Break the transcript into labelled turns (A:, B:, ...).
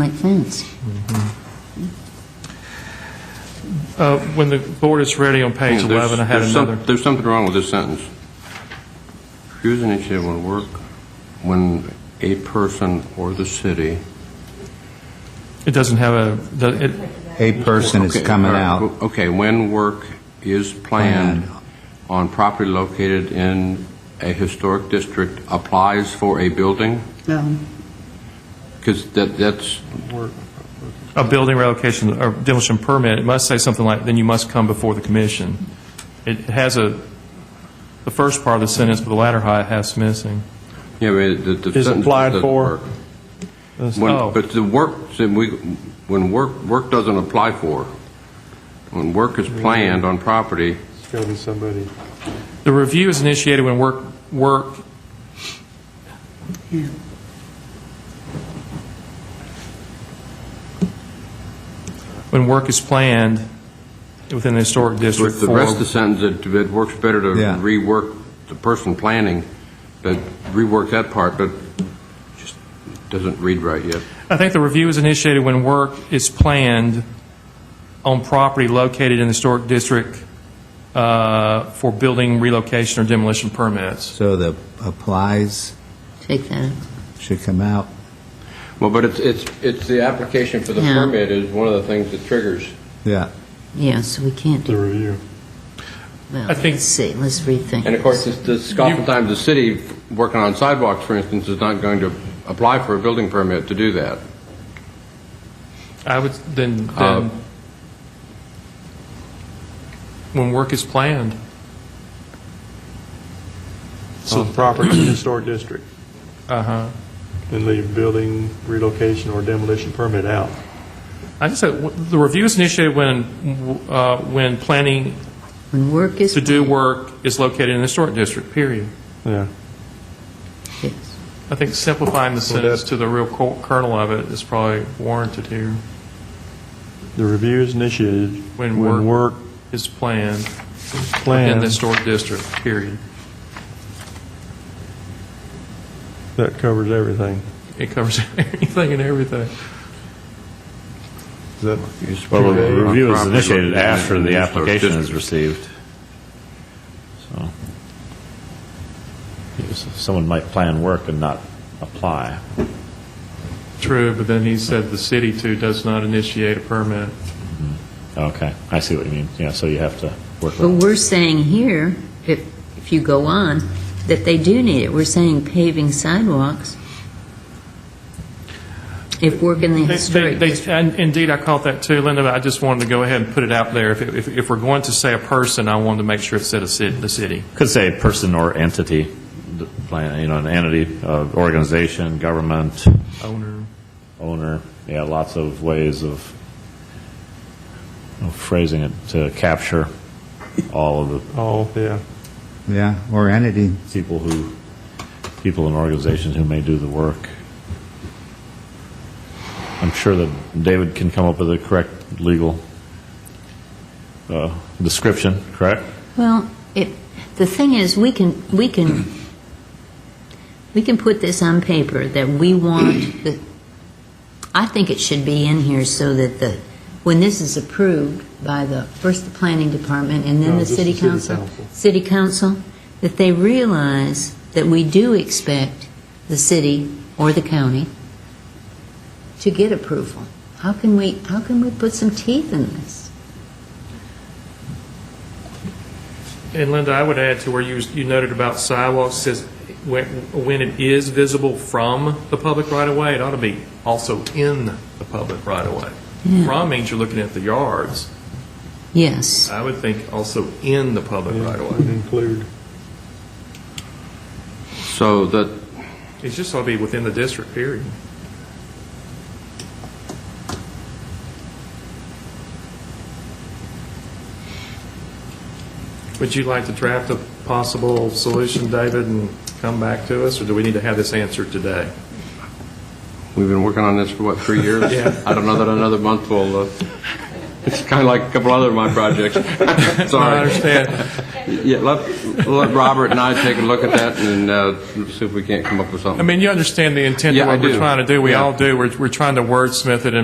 A: Like fence.
B: Uh, When the board is ready on page
C: Yeah, there's-
B: 11, I had
C: there's some-
B: another.
C: There's something wrong with this sentence. Refuse initiative will work when a person or the city.
B: It doesn't have a, the- it-
D: A person is
C: Okay,
D: coming
C: all right,
D: out.
C: Okay, when work is planned on property located in a historic district applies for a building?
A: No.
C: Because that, that's,
B: a building relocation or demolition permit, it must say something like, then you must come before the commission. It has a, the first part of the sentence, but the latter half is missing.
C: yeah, but the- the.
E: Is
C: sentence
E: applied
C: doesn't
E: for-
C: work.
B: That's-
C: When-
B: oh.
C: But the work, see, we- when work, work doesn't apply for, when work is planned on property,
E: It's got to be somebody.
B: The review is initiated when work, work,
A: Yeah.
B: when work is planned within the historic district
C: With the
B: for,
C: rest of the sentence, it, it works better to
D: Yeah.
C: rework the person planning, but rework that part, but just doesn't read right yet.
B: I think the review is initiated when work is planned on property located in the historic district uh, for building relocation or demolition permits.
D: So the applies
A: Take that.
D: should come out.
C: Well, but it's, it's, it's the application for the
A: Yeah.
C: permit is one of the things that triggers.
D: Yeah.
A: Yeah, so we can't
E: The
A: do,
E: review.
A: well,
B: I think-
A: let's see, let's rethink.
C: And of course, this, this, oftentimes the city working on sidewalks, for instance, is not going to apply for a building permit to do that.
B: I would, then,
C: Uh,
B: then, when work is planned.
E: So property in the historic district,
B: Uh-huh.
E: and leave building relocation or demolition permit out.
B: I just said, w- the review is initiated when, uh, when planning
A: When work is.
B: to do
A: planned,
B: work is located in the historic district, period.
E: Yeah.
A: yes.
B: I think simplifying the sentence to the real co- kernel of it is probably warranted here.
E: The review is initiated
B: When
E: when
B: work-
E: work
B: Is planned in the
E: planned.
B: historic district, period.
E: That covers everything.
B: It covers anything and everything.
E: Is that,
F: Well, the
C: On
F: review is
C: property
F: initiated
C: located
F: after
C: in
F: the
C: historic
F: application
C: district.
F: is received. So, yes, someone might plan work and not apply.
B: True, but then he said the city too does not initiate a permit.
F: Okay, I see what you mean. Yeah, so you have to work
A: But
F: around.
A: we're saying here, if, if you go on, that they do need it. We're saying paving sidewalks. If work in the
B: They- They,
A: historic. district.
B: they, and indeed, I caught that too, Linda, but I just wanted to go ahead and put it out there. If, if, if we're going to say a person, I wanted to make sure it said a city, the city.
F: Could say person or entity, the plan, you know, an entity, uh, organization, government,
B: Owner.
F: owner. Yeah, lots of ways of of phrasing it to capture all of the
E: oh, yeah.
D: Yeah. Or entity.
F: people who, people and organizations who may do the work. I'm sure that David can come up with the correct legal uh, description, correct?
A: Well, it, the thing is, we can, we can, we can put this on paper that we want, the- I think it should be in here so that the, when this is approved by the, first the planning department and then
E: No,
A: the
E: just
A: city
E: the city
A: council,
E: council.
A: city council, that they realize that we do expect the city or the county to get approval. How can we, how can we put some teeth in this?
B: And Linda, I would add to where you, you noted about sidewalks, says when, when it is visible from the public right of way, it ought to be also in the public right of way. From means you're looking at the yards.
A: Yes.
B: I would think also in the public
E: yeah,
B: right of
E: would
B: way.
E: Include.
C: So that,
B: It just ought to be within the district, period. Would you like to draft a possible solution, David, and come back to us, or do we need to have this answered today?
C: we've been working on this for what, three years?
B: Yeah.
C: I don't know that another month will, uh, it's kind of like a couple other of my projects.
B: I
C: Sorry.
B: understand.
C: Yeah, let, let Robert and I take a look at that and uh, see if we can't come up with something.
B: I mean, you understand the intent
C: Yeah,
B: of
C: I
B: what we're
C: do.
B: trying to do. We
C: Yeah.
B: all do. We're, we're trying to wordsmith it and